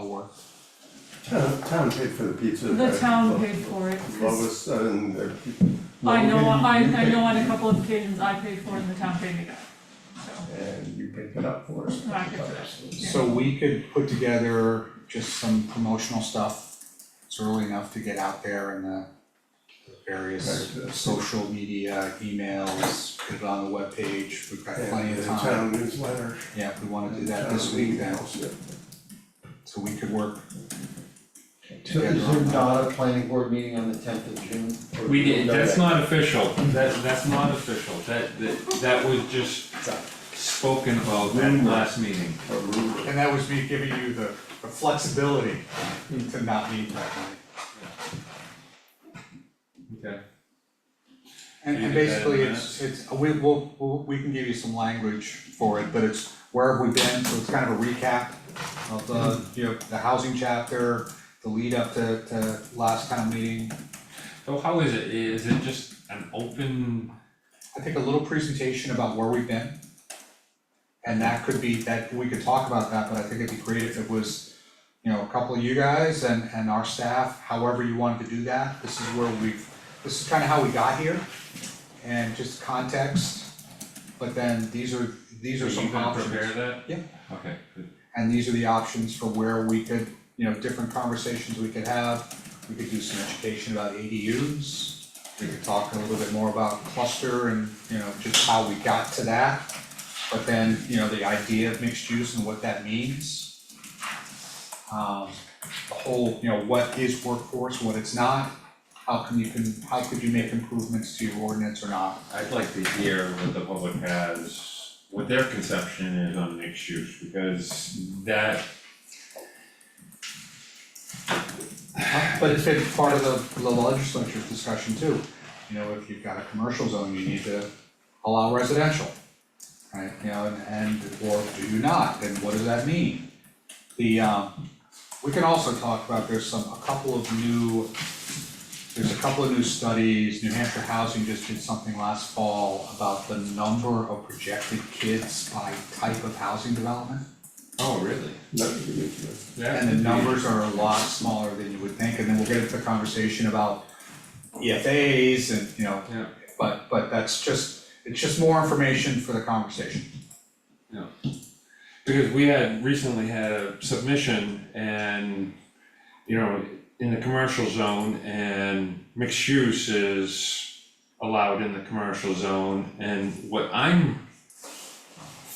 for? Town, town paid for the pizza. The right? town paid for it, 'cause Lois and. uh, I know, Logan, I, you I know on a picked- couple of occasions I paid for it and the town paid me back, so. And you picked it up for us. I picked it up, yeah. So we could put together just some promotional stuff, it's early enough to get out there in the various Right, uh, social media, emails, put it on the webpage, we've got plenty And of the time. town newsletter. Yeah, if we wanna do that town this week, then, emails, yeah. so we could work So together is there on that. not a planning board meeting on the tenth of June? Or- We did, No, That's that- not official, that, that's not official, that, that, that was just spoken about at last meeting. A rumor. And that was me giving you the, the flexibility to not meet that night. Okay. And You did and that in basically, minutes? it's, it's, we, we'll, we'll, we can give you some language for it, but it's, where have we been, so it's kind of a recap of the, you know, the housing chapter, the lead up to, to last town meeting. So how is it, is it just an open, I think a little presentation about where we've been. And that could be, that, we could talk about that, but I think it'd be great if it was, you know, a couple of you guys and, and our staff, however you wanted to do that, this is where we've, this is kind of how we got here. And just context, but then these are, these are are you some gonna options. prepare that? Yeah. Okay, good. And these are the options for where we could, you know, different conversations we could have. We could do some education about ADUs. We could talk a little bit more about cluster and, you know, just how we got to that. But then, you know, the idea of mixed use and what that means. Um, the whole, you know, what is workforce, what it's not, how can you can, how could you make improvements to your ordinance or not? I'd like to hear what the public has, what their conception is on mixed use, because that, Uh, But it's been part of the- the legislature's discussion too. You know, if you've got a commercial zone, you need to allow residential. Right, you know, and and or do you not, and what does that mean? The um, we can also talk about, there's some, a couple of new, there's a couple of new studies, New Hampshire Housing just did something last fall about the number of projected kids by type of housing development. oh, really? Not to be interested. That And could the be- numbers are a lot smaller than you would think, and then we'll get into the conversation about EFAs and, you know, Yeah. but, but that's just, it's just more information for the conversation. because we had recently had a submission and, you know, in the commercial zone and mixed use is allowed in the commercial zone, and what I'm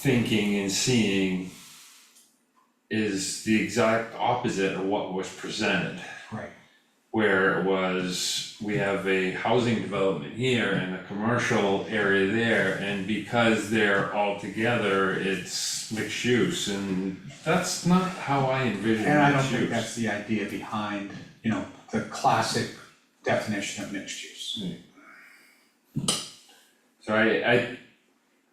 thinking and seeing is the exact opposite of what was presented Right. where it was, we have a housing development here and a commercial area there, and because they're all together, it's mixed use, and that's not how I envision And I don't mixed think that's use. the idea behind, you know, the classic definition of mixed use. So I, I,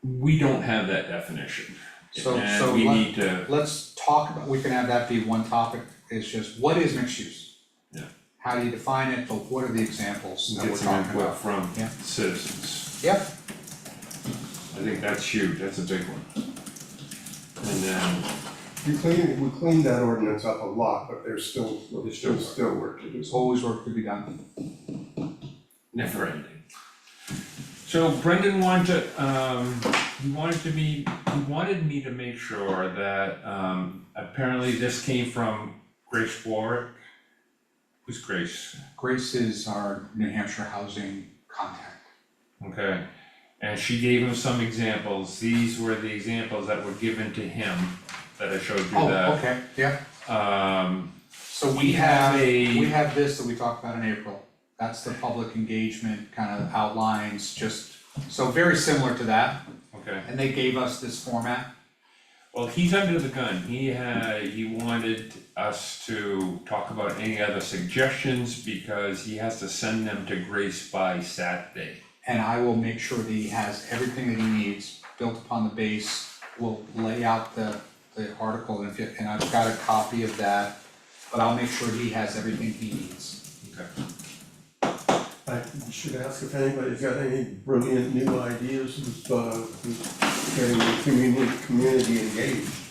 we don't have that definition, So, so and we let, need to, let's talk about, we can have that be one topic, it's just, what is mixed use? Yeah. How do you define it, but what are the examples that we're get some talking input about? from Yeah. citizens, Yep, I think that's huge, that's a big one. And then, We cleaned, we cleaned that ordinance up a lot, but there's still, There's there's still, still work. still work to do. there's always work to be done. never ending. So Brendan wanted, to, um, he wanted to be, he wanted me to make sure that, um, apparently this came from Grace Warwick. Who's Grace? Grace is our New Hampshire housing contact. Okay, and she gave him some examples, these were the examples that were given to him that I showed you Oh, that. okay, yeah, Um, so We we have have, a- we have this that we talked about in April. That's the public engagement kind of outlines, just, so very similar to that, okay, and they gave us this format. well, he's under the gun, he had, he wanted us to talk about any other suggestions because he has to send them to Grace by Saturday. And I will make sure that he has everything that he needs, built upon the base, we'll lay out the, the article, and if, you- and I've got a copy of that. But I'll make sure he has everything he needs. Okay. I should ask if anybody's got any brilliant new ideas of, uh, getting the community, community engaged.